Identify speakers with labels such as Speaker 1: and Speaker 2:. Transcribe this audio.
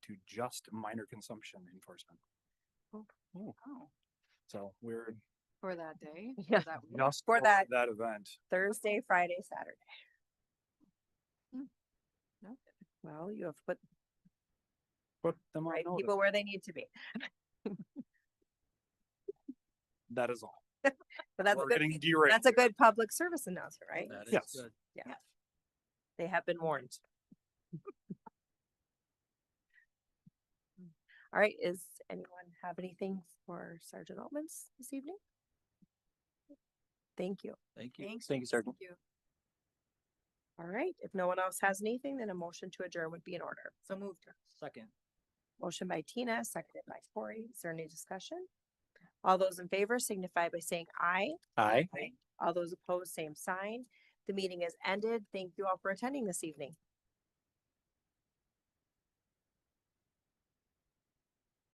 Speaker 1: to just minor consumption enforcement.
Speaker 2: Oh,
Speaker 1: So we're
Speaker 2: for that day?
Speaker 3: Yeah.
Speaker 2: For that week?
Speaker 1: just
Speaker 4: For that-
Speaker 1: That event.
Speaker 4: Thursday, Friday, Saturday. Hmm.
Speaker 2: No?
Speaker 3: Well, you have put
Speaker 1: Put them on
Speaker 4: Right,
Speaker 1: notice.
Speaker 4: people where they need to be.
Speaker 1: That is all.
Speaker 4: But that's a
Speaker 1: We're
Speaker 4: good,
Speaker 1: getting derailed.
Speaker 4: that's a good public service announcement, right?
Speaker 5: That is
Speaker 1: Yes.
Speaker 5: good.
Speaker 4: They have been warned. Hmm. All right, is anyone have anything for Sergeant Altman's this evening? Thank you.
Speaker 5: Thank you.
Speaker 2: Thanks.
Speaker 1: Thank you, Sergeant.
Speaker 2: you.
Speaker 4: All right, if no one else has anything, then a motion to adjourn would be in order.
Speaker 2: So moved.
Speaker 5: Second.
Speaker 4: Motion by Tina, seconded by Corey. Is there any discussion? All those in favor signify by saying aye.
Speaker 1: Aye.
Speaker 4: All those opposed, same sign. The meeting is ended. Thank you all for attending this evening.